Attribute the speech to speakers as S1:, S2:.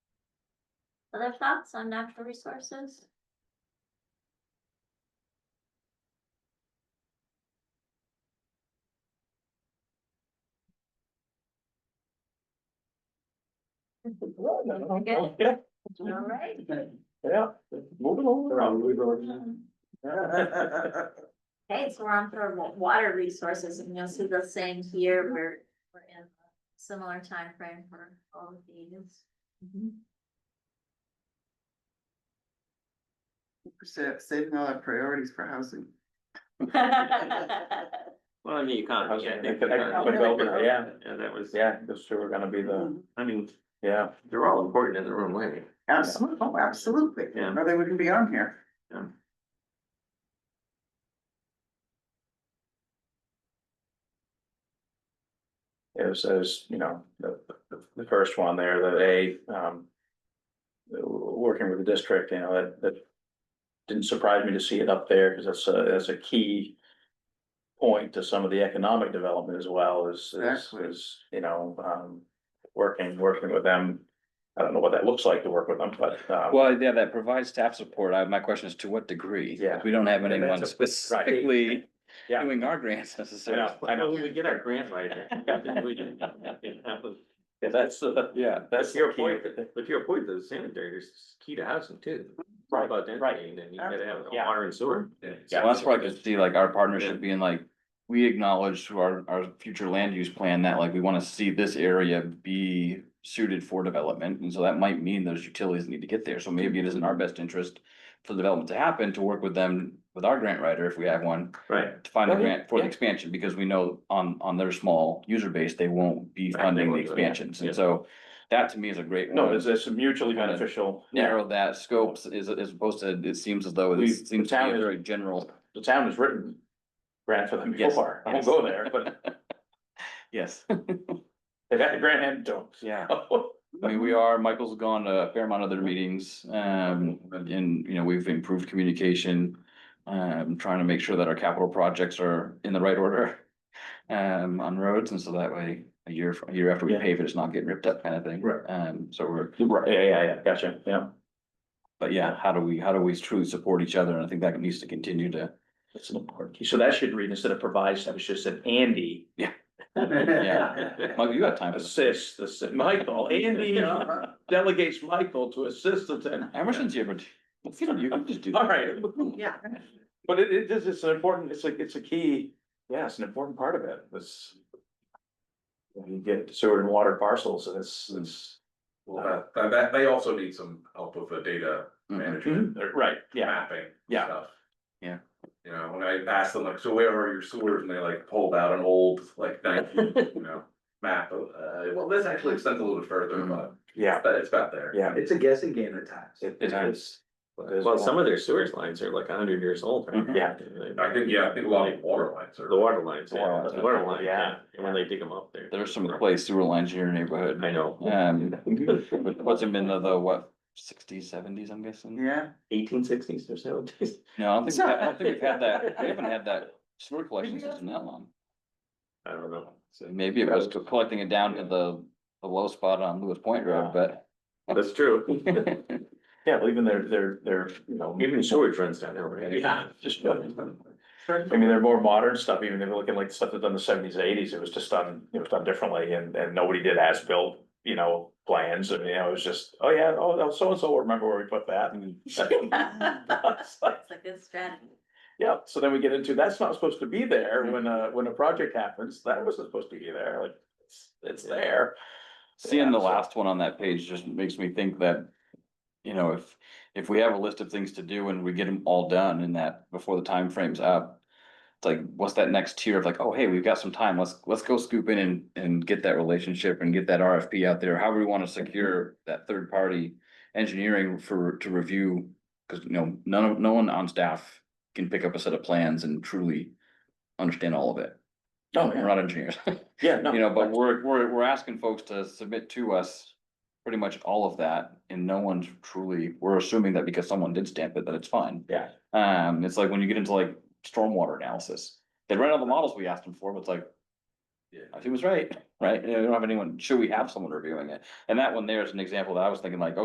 S1: Other thoughts on natural resources? Good.
S2: Yeah,
S1: All right.
S2: yeah, moving along.
S1: Okay, so we're on for wa- water resources and you'll see the same here. We're, we're in a similar time frame for all of these.
S3: Sa- Saving all our priorities for housing.
S4: Well, I mean, you can't,
S2: Housing
S4: yeah,
S2: and
S4: they-
S2: economic
S4: they-
S2: development, yeah.
S4: Yeah, that was,
S2: Yeah, those two are gonna be the,
S4: I mean,
S2: yeah,
S4: they're all important in their own way.
S3: Absolutely, oh, absolutely,
S4: Yeah.
S3: or they wouldn't be on here.
S4: Yeah.
S2: it was, as, you know, the, the- the first one there, that A, um. w- Working with the district, you know, that, that didn't surprise me to see it up there, because that's a, that's a key. Point to some of the economic development as well, is, is,
S3: Exactly.
S2: is, you know, um, working, working with them. I don't know what that looks like to work with them, but, um,
S5: Well, yeah, that provides staff support. I, my question is to what degree?
S2: Yeah.
S5: We don't have
S2: that's
S5: anyone
S2: a-
S5: specifically
S2: Yeah.
S5: doing our grants necessarily.
S2: I know.
S4: Well, We get our grant writer.
S2: yeah, that's, uh,
S5: Yeah.
S2: that's
S4: That's
S2: your
S4: your
S2: point,
S4: point, but to your point, the sanitary is key to housing too. It's all
S2: Right,
S4: About
S2: right.
S4: density, and then you gotta have
S2: Yeah.
S4: water and sewer.
S5: Well, that's where I could see like our partnership being like, we acknowledge through our, our future land use plan that like we wanna see this area be suited for development. And so that might mean those utilities need to get there. So maybe it is in our best interest for development to happen, to work with them, with our grant writer, if we have one,
S4: Right.
S5: to find a
S2: Oh, yeah,
S5: grant for the
S2: yeah.
S5: expansion, because we know on, on their small user base, they won't be
S4: Right, they
S5: funding the
S4: won't do it, yeah,
S5: expansions,
S4: yeah.
S5: and so. That to me is a great
S2: No,
S5: one,
S2: it's, it's mutually beneficial.
S5: narrow that scope is, is opposed to, it seems as though it
S2: We-
S5: seems to be
S2: the town
S5: a
S2: is-
S5: very general,
S2: The town has written grant for them
S5: Yes,
S2: before. I won't
S5: yes.
S2: go there, but
S5: yes.
S2: they've had the grant and don't.
S5: Yeah. I mean, we are, Michael's gone to a fair amount of their meetings, um, and, you know, we've improved communication. Um, trying to make sure that our capital projects are in the right order, um, on roads, and so that way, a year, a year after we
S2: Yeah.
S5: pave it, it's not getting ripped up kind of thing.
S2: Right.
S5: Um, so we're,
S2: Right, yeah, yeah, yeah, gotcha, yeah.
S5: but yeah, how do we, how do we truly support each other, and I think that needs to continue to,
S2: That's an important key. So that should read instead of provides, that was just an Andy.
S5: Yeah.
S2: Yeah.
S5: Michael, you got time for this.
S2: Assist, this, Michael, Andy uh, delegates Michael to assist the town.
S5: Emerson's here, but you know, you can just do. that.
S2: All right,
S3: Yeah.
S2: but it, it is, it's an important, it's like, it's a key, yeah, it's an important part of it, this. when You get sewer and water parcels and it's, it's.
S6: Well,
S4: Mm-hmm.
S6: that, that, that, they also need some help with the data
S5: Mhm.
S6: management, or
S2: Right, Mm-hmm. yeah.
S6: mapping
S2: Yeah.
S6: stuff.
S5: Yeah.
S6: You know, when I asked them like, so where are your sewers, and they like pulled out an old, like, nineteen, you know, map, of, uh, well, this actually extends a little bit further, but.
S2: Yeah.
S6: But it's about there.
S2: Yeah.
S6: It's a guessing game at times.
S2: It it is.
S4: Well, some of their sewage lines are like a hundred years old. right?
S5: Mhm.
S2: Yeah.
S6: I think, Mm-hmm. yeah, I think a lot of water lines are.
S4: The water lines, yeah,
S5: Water
S4: the
S5: lines,
S4: water line, yeah,
S2: yeah.
S4: and when they dig them up there.
S5: There's some place sewer lines in your neighborhood,
S4: I know,
S5: um, but what's it been the, the, what, sixties, seventies, I'm guessing?
S3: Yeah,
S4: eighteen sixties or seventies.
S5: No, I don't think, we've had- I don't think we've had that, we haven't had that sewer collection system that long.
S4: I don't know.
S5: So maybe it was collecting it down to the, the low spot on Lewis Point Road, but.
S4: That's true.
S2: Yeah, well, even their, their, their, you know.
S4: Even sewage runs down there, right?
S2: Yeah, just, I mean, they're more modern stuff, even if you're looking like the stuff that's done in the seventies, eighties, it was just done, it was done differently and, and nobody did as-built, you know, plans and, you know, it was just, oh yeah, oh, so-and-so will remember where we put that. It's like,
S1: It's a good strategy.
S2: Yeah, so then we get into, that's not supposed to be there
S5: Mm-hmm.
S2: when a, when a project happens, that wasn't supposed to be there, like, it's, it's there.
S5: Seeing the
S2: Yeah, so-
S5: last one on that page just makes me think that, you know, if, if we have a list of things to do and we get them all done in that, before the time frame's up. It's like, what's that next tier of like, oh, hey, we've got some time, let's, let's go scoop in and, and get that relationship and get that RFP out there, however we wanna secure that third party. Engineering for, to review, cause you know, none of, no one on staff can pick up a set of plans and truly understand all of it.
S2: Oh,
S5: We're
S2: yeah.
S5: not engineers.
S2: Yeah, no.
S5: You know, but we're, we're, we're asking folks to submit to us pretty much all of that and no one's truly, we're assuming that because someone did stamp it, that it's fine.
S2: Yeah.
S5: Um, it's like when you get into like stormwater analysis, they ran all the models we asked them for, but it's like.
S6: Yeah.
S5: I think it was right, right? You know, we don't have anyone, should we have someone reviewing it? And that one there is an example that I was thinking like,